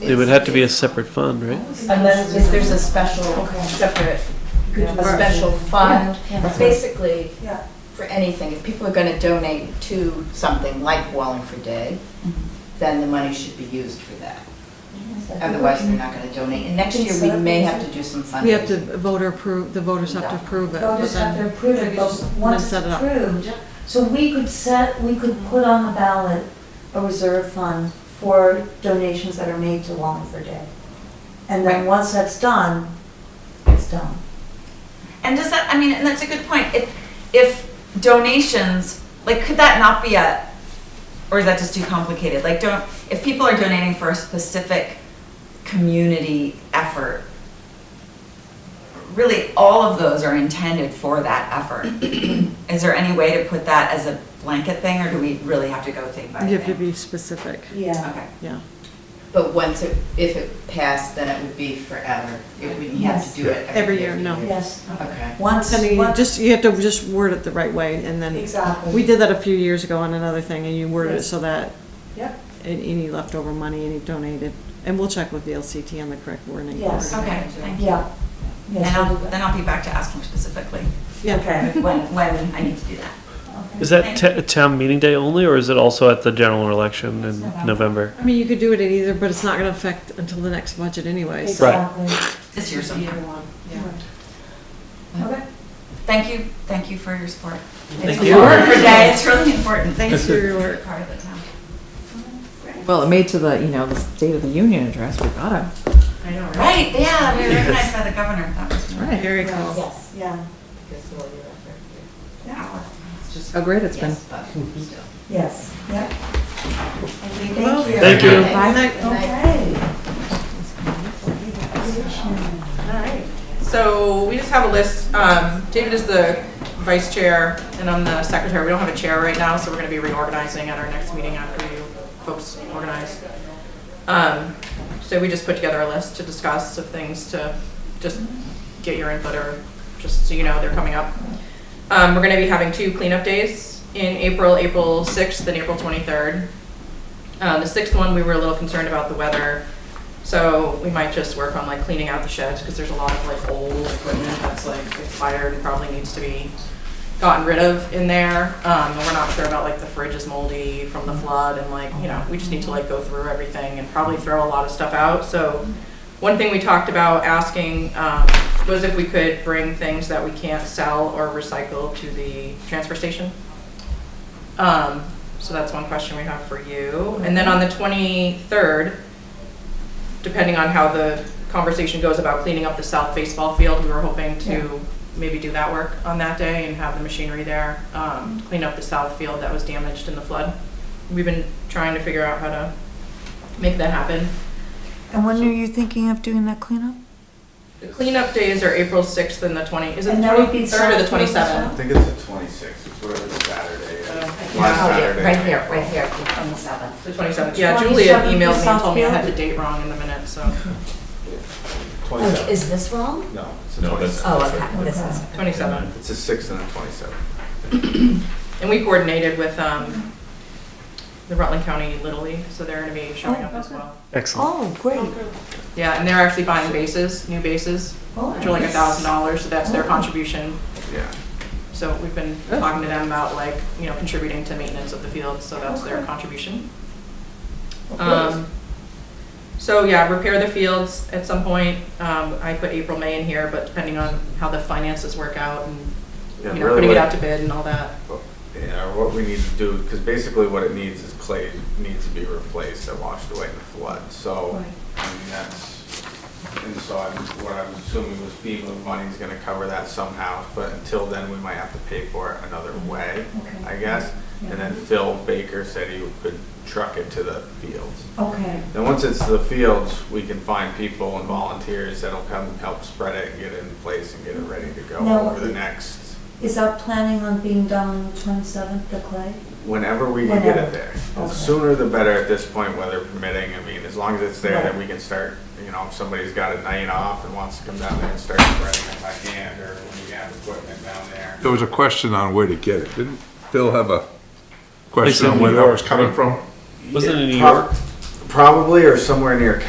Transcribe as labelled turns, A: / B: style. A: It would have to be a separate fund, right?
B: Unless if there's a special, separate, a special fund, basically,
C: Yeah.
B: for anything, if people are gonna donate to something like Wallingford Day,
C: Mm-hmm.
B: then the money should be used for that. Otherwise, they're not gonna donate, and next year, we may have to do some fundraising.
D: We have to voter approve, the voters have to approve it. but
C: Voters have to
D: then-
C: approve it, but once it's
D: set it up.
C: approved, so we could set, we could put on the ballot a reserve fund for donations that are made to Wallingford Day. And then
E: Right.
C: once that's done, it's done.
E: And does that, I mean, and that's a good point. If, if donations, like, could that not be a, or is that just too complicated? Like, don't, if people are donating for a specific community effort, really, all of those are intended for that effort. Is there any way to put that as a blanket thing, or do we really have to go thing by thing?
D: You have to be specific,
C: Yeah.
E: Okay,
D: yeah.
B: But once it, if it passed, then it would be forever, it wouldn't have to do it
D: Every
B: every year.
D: year, no.
C: Yes,
B: Okay.
C: once,
D: I mean, you
C: once,
D: just, you have to just word it the right way and then,
C: exactly.
D: we did that a few years ago on another thing and you worded it so that
C: Yep.
D: an- any leftover money, any donated, and we'll check with the LCT on the correct wording.
C: Yes.
E: okay, thank you.
C: Yeah.
E: And
C: Yes,
E: I'll,
C: we'll do that.
E: then I'll be back to ask them specifically
D: Yeah,
C: Okay.
E: when, when I need to do that.
C: Okay.
A: Is that ta- town meeting day only, or is it also at the general election in November?
D: I mean, you could do it at either, but it's not gonna affect until the next budget anyway, so.
C: Exactly.
E: This year sometime.
C: Okay.
E: Thank you, thank you for your support.
A: Thank
E: It's
A: you.
E: important for day, it's really important.
D: Thanks for your work.
E: Part of the town.
F: Well, it made to the, you know, the State of the Union address, we gotta,
E: I know, right? Yeah, we were recognized by the governor, that was really.
F: right.
D: Very cool.
B: Yes.
C: Yeah,
F: Oh, great, it's been.
B: Yes, but still.
C: yes, yep.
D: Well,
C: Thank you.
A: Thank you.
D: Bye. Night.
C: Okay.
G: So we just have a list. Um, David is the vice chair and I'm the secretary. We don't have a chair right now, so we're gonna be reorganizing at our next meeting after you folks organize. Um, so we just put together a list to discuss of things to just get your input or just so you know they're coming up. Um, we're gonna be having two cleanup days in April, April sixth and April twenty-third. Uh, the sixth one, we were a little concerned about the weather. So we might just work on like cleaning out the sheds because there's a lot of like old equipment that's like expired and probably needs to be gotten rid of in there. Um, and we're not sure about like the fridge is moldy from the flood and like, you know, we just need to like go through everything and probably throw a lot of stuff out. So one thing we talked about asking, um, was if we could bring things that we can't sell or recycle to the transfer station. Um, so that's one question we have for you. And then on the twenty-third, depending on how the conversation goes about cleaning up the south baseball field, we were hoping to maybe do that work on that day and have the machinery there, um, to clean up the south field that was damaged in the flood. We've been trying to figure out how to make that happen.
C: And when are you thinking of doing that cleanup?
G: The cleanup days are April sixth and the twenty, is it
C: And
G: the
C: that would be
G: twenty-third or the
C: South Field as
G: twenty-seventh?
H: I think it's the twenty-sixth, it's whatever Saturday is. Last
B: Oh, yeah,
H: Saturday.
B: Right here, right here, on the seventh.
G: The twenty-seventh, yeah,
C: 27th
G: Julia
C: for
G: emailed me and told me I
C: Southfield?
G: had the date wrong in the minute, so,
H: Twenty-seventh,
B: Is this wrong?
H: no, it's the twenty-seventh.
B: Oh, okay, this is.
G: twenty-seventh.
H: It's the sixth and the twenty-seventh.
G: And we coordinated with um, the Rutland County Little League, so they're gonna be showing up as well.
A: Excellent.
C: Oh, great.
G: Yeah, and they're actually buying bases, new bases,
C: Oh,
G: which are like a thousand dollars, so that's their contribution.
H: Yeah,
G: So we've been talking to them about like, you know, contributing to maintenance of the field, so that's their contribution. Um, So yeah, repair the fields at some point. Um, I put April, May in here, but depending on how the finances work out and,
H: Yeah,
G: you know,
H: really
G: putting it
H: what- Oh,
G: out to bid and all that.
H: yeah, what we need to do, because basically what it needs is clay needs to be replaced that washed away in the flood, so. I mean, that's, and so I'm, what I'm assuming was FEMA money's gonna cover that somehow, but until then, we might have to pay for it another
G: Mm-hmm.
H: way, I guess. And then Phil Baker said he could truck it to the fields.
C: Okay,
H: Then once it's the fields, we can find people and volunteers that'll come and help spread it and get it in place and get it ready to go
C: Now-
H: over the next,
C: is that planning on being done on the twenty-seventh, the clay?
H: whenever we can get
C: Whenever.
H: it there.
C: Okay.
H: The sooner the better at this point, weather permitting. I mean, as long as it's there, then we can start, you know, if somebody's got a night off and wants to come down there and start spreading it by hand or when we have equipment down there.
I: There was a question on where to get it. Didn't Phil have a
A: It's in
I: question on where
A: New
I: that
A: York,
I: was coming from?
A: Wasn't it in New
H: Prob-
A: York?
H: Probably or somewhere near